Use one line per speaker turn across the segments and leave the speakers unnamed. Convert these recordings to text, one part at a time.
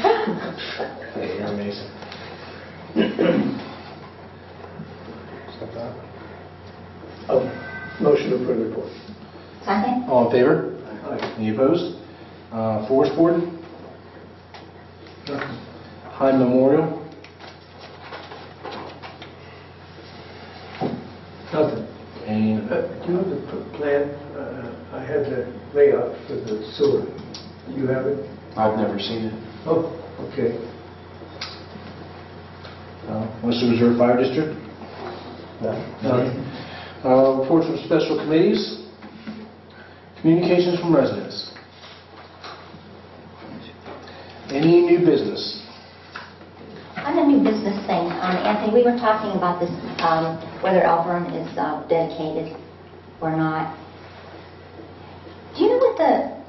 Hey, You're amazing. Stop that.
Oh, Motion to approve report.
Second?
All in favor? Any opposed? Uh, Forest Board? Hyde Memorial?
Nothing.
And
Uh, Do you have the p- plan? Uh, I had the layout for the sewer. You have it?
I've never seen it.
Oh, okay.
Uh, Western Reserve Fire District?
Nothing.
Uh, Reports from special committees? Communications from residents? Any new business?
On the new business thing, um, Anthony, we were talking about this, um, whether Elburn is uh, dedicated or not. Do you know what the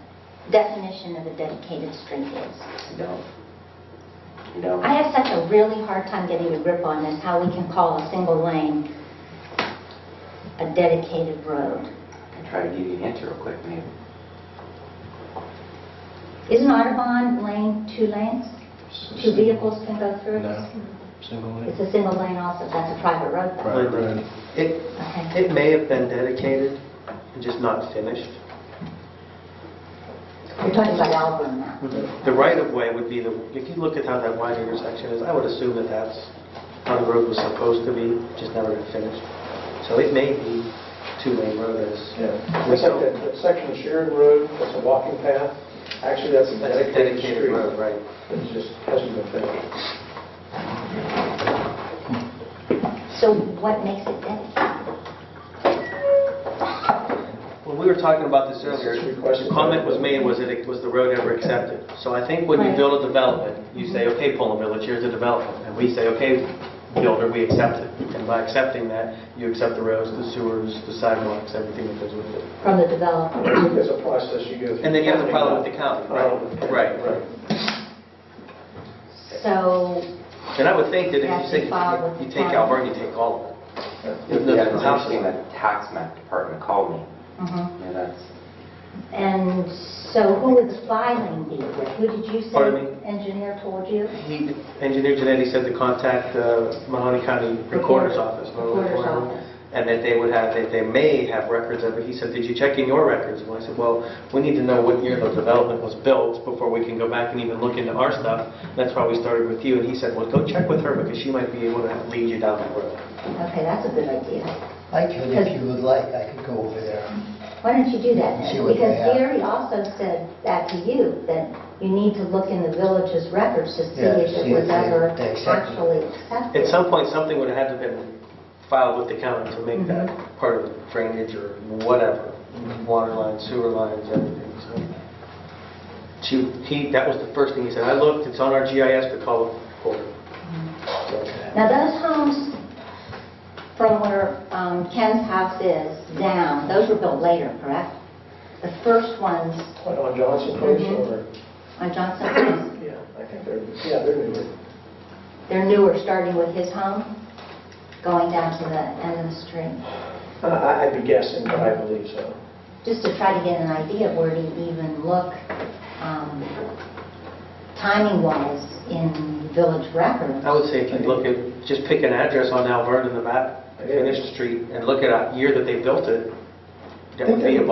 definition of a dedicated street is?
No. No.
I have such a really hard time getting a grip on this, how we can call a single lane a dedicated road.
I'll try to give you an answer real quick, maybe.
Isn't Audubon lane two lanes? Two vehicles can go through?
No. Single
It's
lane?
a single lane also, that's a private road. though.
Private road.
It,
Okay.
it may have been dedicated and just not finished.
You're talking about Elburn now.
The right-of-way would be the, if you look at how that wide intersection is, I would assume that that's how the road was supposed to be, just never been finished. So it may be two-lane road as,
It's like that that section of Sheridan Road, that's a walking path. Actually, that's a
that's a
dedicated
dedicated
street.
road, right?
It just hasn't been finished.
So what makes it dedicated?
Well, we were talking about this earlier.
This is requested.
The comment was made, was that it, was the road ever accepted? So I think when you
Right.
build a development, you say, okay, Poland Village, here's the development. And we say, okay, builder, we accept it. And by accepting that, you accept the roads, the sewers, the sidewalks, everything that goes with it.
From the developer.
There's a process you go through.
And then you have to follow with the county, right?
Follow with the county,
Right.
Right.
So,
And I would think that if
You have
you
to
say,
follow with
you
the
take
county.
Alberta, you take all of it. If
Yeah, it's
nothing's
interesting
optional.
that the tax map department called me.
mhm.
Yeah, that's,
and so who would the filing be with? Who did you
Pardon
say engineer told you?
He, Engineer Janetti said to contact the Mahoney County Recorder's Office.
Recorder's office.
And that they would have, that they may have records of it. He said, did you check in your records? And I said, well, we need to know what year the development was built before we can go back and even look into our stuff. That's why we started with you. And he said, well, go check with her because she might be able to lead you down that road.
Okay, that's a good idea.
I could, if you would like, I could go over there.
Why don't you do that
See
then?
what they
Because
have.
Gary also said that to you, that you need to look in the village's records to see
Yeah,
if
see
it was
if they-
ever
they accept it.
actually accepted.
At some point, something would have had to have been filed with the county to make that part of drainage or whatever, water lines, sewer lines, everything, so. She, he, that was the first thing he said, I looked, it's on our GIS, but call it forward.
Now, those homes from where um, Ken's house is down, those were built later, correct? The first ones
What, on Johnson Place
Mhm.
or?
on Johnson Place,
Yeah, I think they're, yeah, they're newer.
they're newer, starting with his home, going down to the end of the street,
Uh, I- I'd be guessing, but I believe so.
just to try to get an idea of where to even look um, timing-wise in village records.
I would say if you look at, just pick an address on Alverne in the map, finish the street, and look at a year that they built it, that would be
They
a
were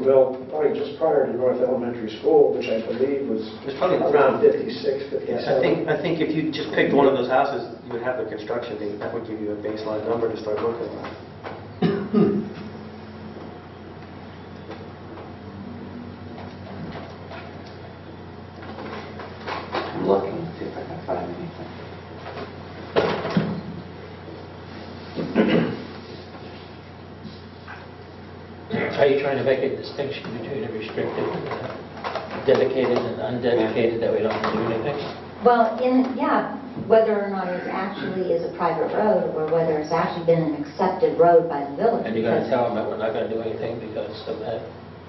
ballpark.
built probably just prior to North Elementary School, which I believe was
It's probably
around
around
56,
Yeah,
57.
I think, I think if you just picked one of those houses, you would have the construction date, that would give you a baseline number to start looking at.
I'm looking to see if I can find anything.
Are you trying to make a distinction between a restricted, uh, dedicated and undedicated, that we don't do anything?
Well, in, yeah, whether or not it actually is a private road, or whether it's actually been an accepted road by the village.
And you're going to
because
tell them that we're not going to do anything because of that?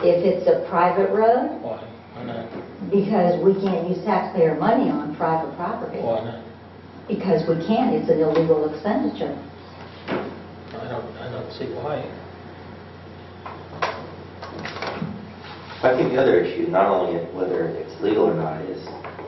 If it's a private road,
Why? Why not?
because we can't use taxpayer money on private property.
Why not?
Because we can't, it's an illegal expenditure.
I don't, I don't see why.
But I think the other issue, not only whether it's legal or not, is